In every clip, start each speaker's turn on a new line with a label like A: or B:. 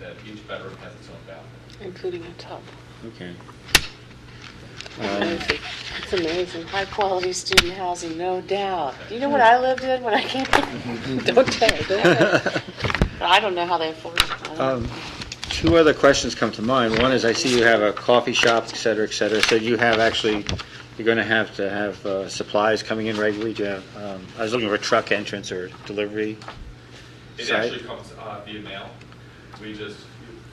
A: that each bedroom has its own bathroom.
B: including a tub.
C: Okay. Um,
B: Amazing. It's amazing. High-quality student housing, no doubt. You know what I lived in when I came? Don't tell, don't tell. I don't know how they afford it. I
D: Uh,
B: don't-
C: um, Two other questions come to mind. One is, I see you have a coffee shop, et cetera, et cetera, so you have actually, you're going to have to have uh, supplies coming in regularly, do you have, um, I was looking for truck entrance or delivery.
A: It
C: Sorry?
A: actually comes uh, via mail. We just,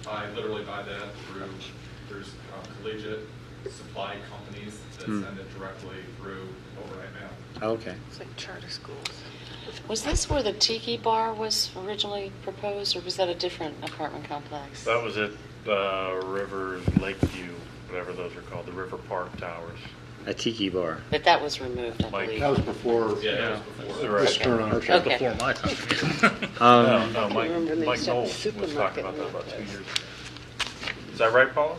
A: I literally buy that through, there's um, collegiate supply companies that
C: Hmm.
A: send it directly through overnight mail.
C: Oh, Okay.
B: It's like charter schools. Was this where the tiki bar was originally proposed, or was that a different apartment complex?
E: That was at uh, River Lakeview, whatever those are called, the River Park Towers.
C: A tiki bar.
B: But that was removed, I
E: Mike.
B: believe.
D: That was before
A: Yeah, that was before.
E: Right.
D: this turn on.
B: Okay. Before
F: my time.
E: No,
C: Um,
E: no, Mike,
B: remember they
E: Mike
B: used to have a
E: Knoll was
B: supermarket
E: talking about that
B: in
E: about
B: that
E: two
B: place.
E: years ago. Is that right, Paula?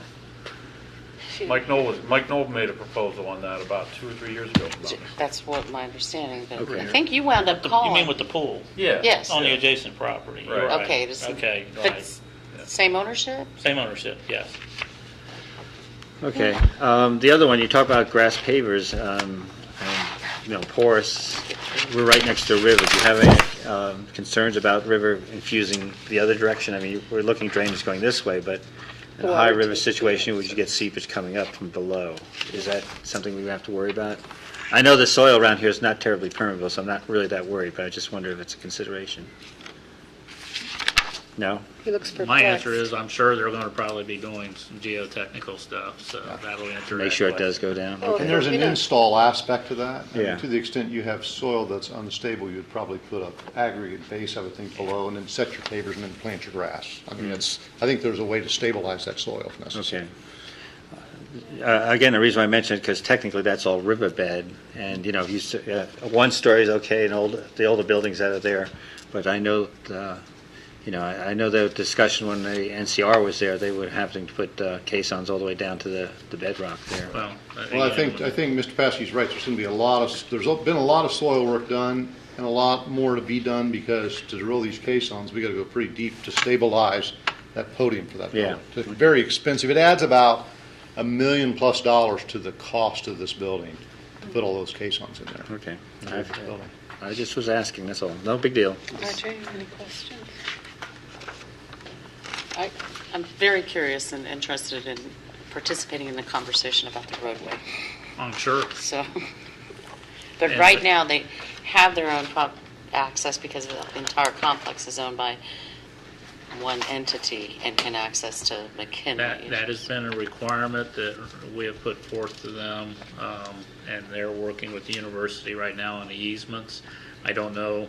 B: Phew.
E: Mike Knoll was, Mike Knoll made a proposal on that about two or three years ago. about it.
B: That's what my understanding, but
C: Okay.
B: I think you wound up
F: You
B: calling.
F: mean with the pool?
E: Yeah.
B: Yes.
F: On the adjacent property, you're
E: Right.
F: right.
B: Okay, it is-
F: Okay,
B: but
F: right.
B: Same ownership?
F: Same ownership, yes.
C: okay. Um, The other one, you talk about grass pavers, um, and, you know, porous, we're right next to a river. Do you have any um, concerns about river infusing the other direction? I mean, we're looking drainage going this way, but in a high river situation, would you get seepage coming up from below? Is that something we have to worry about? I know the soil around here is not terribly permeable, so I'm not really that worried, but I just wonder if it's a consideration. No?
B: He looks perplexed.
F: My answer is, I'm sure they're going to probably be doing some geotechnical stuff, so that'll answer that
C: Make sure it
F: question.
C: does go down.
G: Oh,
B: Well,
C: Okay.
D: And there's
B: We
D: an
B: don't-
D: install aspect to that. I mean,
C: Yeah.
D: To the extent you have soil that's unstable, you'd probably put a aggregate base, I would think, below, and then set your pavers and then plant your grass. I mean, it's, I think there's a way to stabilize that soil if necessary.
C: Hmm. Okay. Uh, Again, the reason I mentioned it, because technically that's all riverbed, and, you know, if you, s- uh, one story is okay, and old, the older buildings that are there, but I know, uh, you know, I I know the discussion when the NCR was there, they were having to put uh, caissons all the way down to the the bedrock there.
F: Well, uh,
D: Well, I think, I think Mr. Paskey's right, there's going to be a lot of, there's been a lot of soil work done, and a lot more to be done, because to drill these caissons, we got to go pretty deep to stabilize that podium for that building.
C: Yeah.
D: It's very expensive, it adds about a million-plus dollars to the cost of this building, to put all those caissons in there.
C: Okay.
D: Very
C: I've-
D: good building.
C: I just was asking, that's all. No big deal.
B: Roger, you have any questions? I, I'm very curious and interested in participating in the conversation about the roadway,
F: I'm sure.
B: so. But
F: And-
B: right now, they have their own pro- access because the entire complex is owned by one entity and can access to
F: That,
B: McKinley.
F: that has been a requirement that we have put forth to them, um, and they're working with the university right now on the easements. I don't know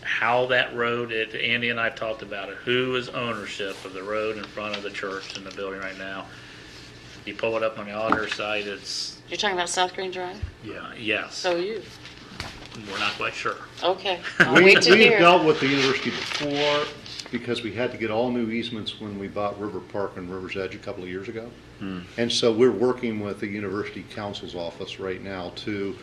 F: how that road, it- Andy and I have talked about it, who is ownership of the road in front of the church and the building right now? You pull it up on the auditor site, it's,
B: You're talking about South Green Drive?
F: yeah, yes,
B: So are you.
F: we're not quite sure.
B: Okay, I'll
D: We,
B: wait to
D: we have
B: hear.
D: dealt with the university before, because we had to get all new easements when we bought River Park and River's Edge a couple of years ago. And so we're working with the university council's office right now to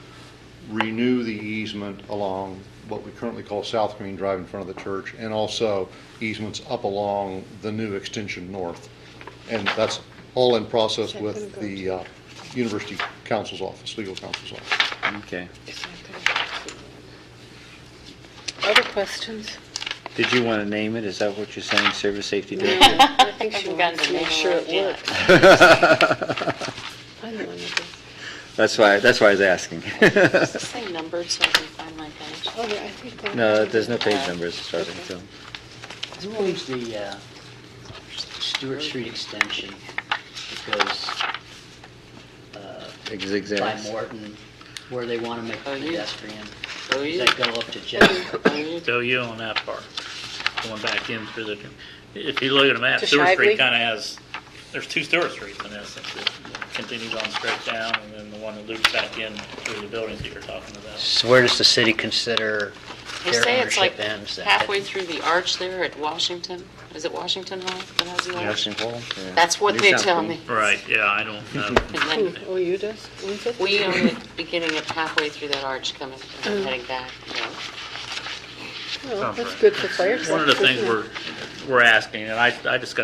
D: renew the easement along what we currently call South Green Drive in front of the church, and also easements up along the new extension north. And that's all in process with the, uh, university council's office, legal counsel's office.
C: Okay.
G: Other questions?
C: Did you want to name it? Is that what you're saying, service safety director?
G: I think she
B: Haven't gotten
G: wants to
B: name
G: make sure
B: alert
G: it
B: yet.
G: works. I know, I know this.
C: That's why, that's why I was asking.
B: Say numbered so I can find my page.
G: Oh, yeah, I think that-
C: No, there's no page numbers as far as I can tell.
H: Who owns the uh, Stewart Street extension that goes uh,
C: Big
H: by
C: Zigzags.
H: Morton, where they want to make
B: Oh, yeah.
H: pedestrian?
B: Oh,
H: Does
B: you.
H: that go up to Jeff?
B: Oh, you.
F: So you on that part, going back in through the, if you look at a map,
G: To
F: Stewart
G: Shively?
F: Street kind of has, there's two Stewart Streets in essence. It continues on straight down and then the one that loops back in through the buildings that you're talking about.
H: So where does the city consider
B: They
H: their
B: say it's like
H: ownership ends? That-
B: halfway through the arch there at Washington. Is it Washington Hall that has the arch?
C: Washington Hall? Yeah.
B: That's what
C: New
B: they
C: South
B: tell
C: Pole.
B: me.
F: Right, yeah, I don't know.
B: And
G: Who,
B: then
G: oh, you does? Who's it?
B: we own the beginning of halfway through that arch coming,
G: Oh.
B: heading back. you know.
G: Well, that's
F: Sounds right.
G: Oh, good for fire trucks.
F: One of the
G: isn't
F: things
G: it?
F: we're, we're asking, and I, I discussed